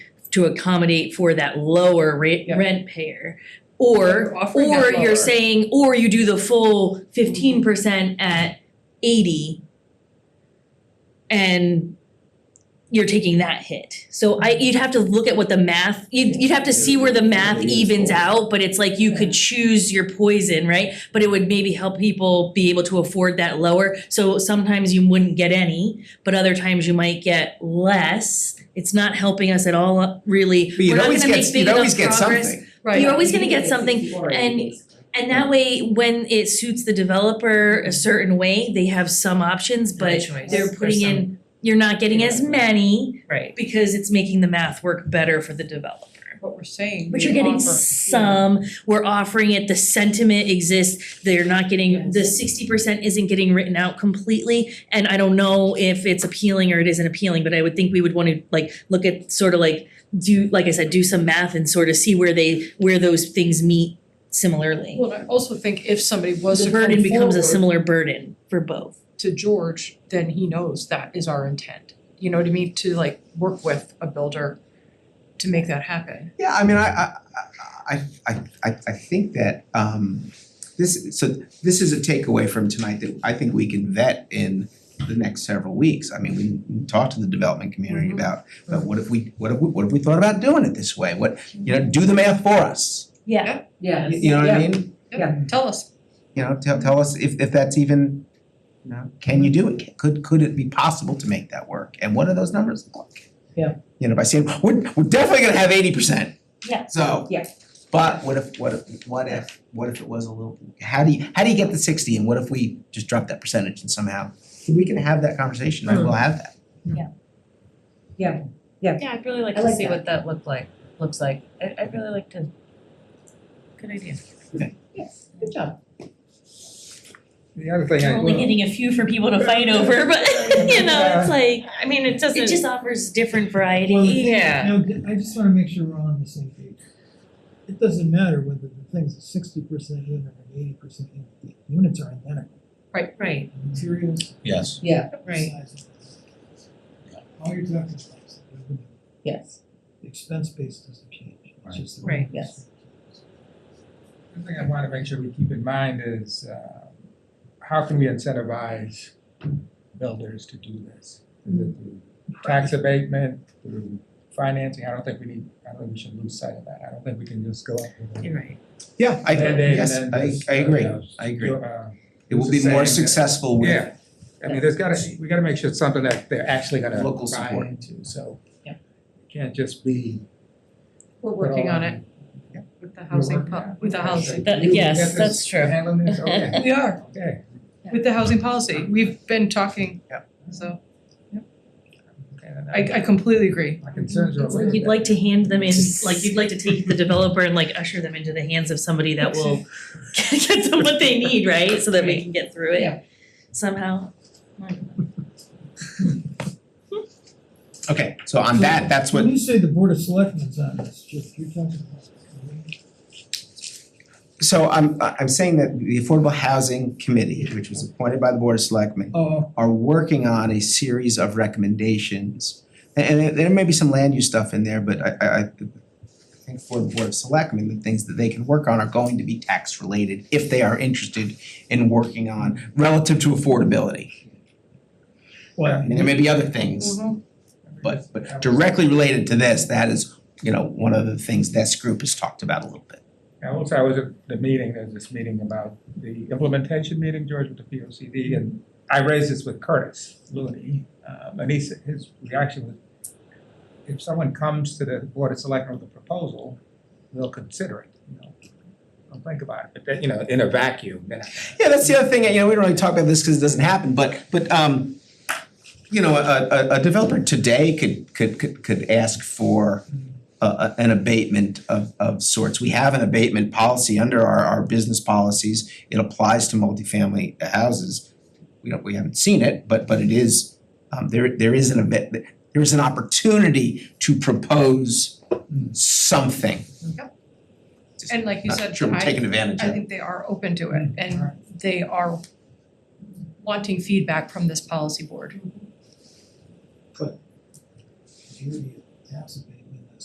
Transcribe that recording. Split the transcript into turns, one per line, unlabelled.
to accommodate for that lower rate,
Yeah.
rent payer. Or,
Offering that
or you're
lower.
saying, or you do the full fifteen percent at eighty. And you're taking that hit, so I, you'd have to look at what the math, you'd, you'd have to see where the math evens out, but it's like you could choose your poison, right? But it would maybe help people be able to afford that lower, so sometimes you wouldn't get any, but other times you might get less. It's not helping us at all, really,
But
we're
you'd
not
always
gonna
get,
make big
you'd always
enough
get
progress.
something.
Right.
You're always gonna get
It's
something,
before it
and-
is.
And that way, when it suits the developer a certain way, they have some options, but
choice
they're
for
putting
some.
in, you're not getting as many
Right.
because it's making the math work better for the developer.
What we're saying.
But
we
you're getting
offer-
some, we're offering it, the sentiment exists, they're not getting, the sixty percent isn't getting written out completely. And I don't know if it's appealing or it isn't appealing, but I would think we would wanna like, look at sort of like, do, like I said, do some math and sort of see where they, where those things meet similarly.
Well, and I also think if somebody was
The
to come
burden becomes a
forward
similar burden for both.
to George, then he knows that is our intent. You know what I mean? To like work with a builder to make that happen.
Yeah, I mean, I, I, I, I, I, I think that, um, this, so this is a takeaway from tonight that I think we can vet in the next several weeks. I mean, we can talk to the development community
Mm-hmm.
Mhm.
about, but what if we, what if, we- what if we thought about doing it this way? What, you know, do the math for us.
Yeah.
You-
Yes.
You know what I mean?
Yeah.
Tell us.
you know, tell tell us if if that's even, you know, can you do it? Could could it be possible to make that work? And what are those numbers look like?
Yeah.
You know, by saying, we're we're definitely gonna have eighty percent.
Yeah.
So.
Yeah.
But what if, what if, what if, what if it was a little, how do you, how do you get the sixty and what if we just drop that percentage and somehow? We can have that conversation,
Hmm.
I will have that.
Yeah, I'd really like
I
to
like
see
that.
what that look like, looks like. I I'd really like to. Good idea.
Good job.
The other thing I,
We're only
well,
getting a few for people to fight over, but you know, it's like,
I mean, it doesn't.
it just offers different variety.
Well,
Yeah.
Now, d- I just wanna make sure we're all on the same page. It doesn't matter whether the thing's a sixty percent unit or an eighty percent unit, the units are identical,
Right,
the materials,
Yes.
the
right.
size of the things. All you're talking about is the revenue,
Yes.
the expense base doesn't change, it's just the
Right.
revenue.
Yes.
the thing I wanna make sure we keep in mind is, uh, how can we incentivize builders to do this? Is it through tax abatement, through financing? I don't think we need, I don't think we should lose sight of that. I don't think we can just go up with a
You're right.
Yeah, I,
mandate
yes,
and then
I
just,
I agree,
uh,
I agree.
uh,
It will be
It's the
more
same, yeah.
successful with
Yeah, I mean, there's gotta, we gotta make sure it's something that they're actually gonna
Local
buy
support.
into, so.
Yeah. it Can't
Can't just be.
We're working on it with the housing
working on
po-
it.
with the housing.
That- yes, that's true.
Handling this, okay,
We are
okay,
with the housing policy. We've been talking.
Yeah.
So
okay, then
I I completely agree.
My concerns are.
It's like you'd like to hand them in, like you'd like to take the developer and like usher them into the hands of somebody that will get them what they need, right? So that we can get through
Yeah.
it somehow.
Okay, so on that, that's what
When you say the board of selectmen's on this, just, you're talking about.
So I'm I'm saying that the Affordable Housing Committee, which was appointed by the Board of Selectmen,
Oh,
are working on a series of recommendations. And and there may be some land use stuff in there, but I I I think for the Board of Selectmen, the things that they can work on are going to be tax related if they are interested in working on relative to affordability. I
well,
mean, there may be other things, but but directly related to this, that is, you know, one of the things this group has talked about a little bit.
And also, I was at the meeting, there's this meeting about the implementation meeting, George, with the P O C D, and I raised this with Curtis Looney, um, and he said, his reaction was, if someone comes to the Board of Selectmen with a proposal, they'll consider it, you know, they'll think about it, but then, you know, in a vacuum, then
Yeah, that's the other thing, you know, we don't really talk about this because it doesn't happen, but, but, um, you know, a, a, a developer today could, could, could, could ask for a, a, an abatement of, of sorts. We have an abatement policy under our, our business policies. It applies to multifamily houses. We don't, we haven't seen it, but, but it is, um, there, there is an abate, there is an opportunity to propose something.
And like you said,
Not sure we're
I-
taking advantage of
I
it.
think they are open to it and they are wanting feedback from this policy board.
beauty of tax abatement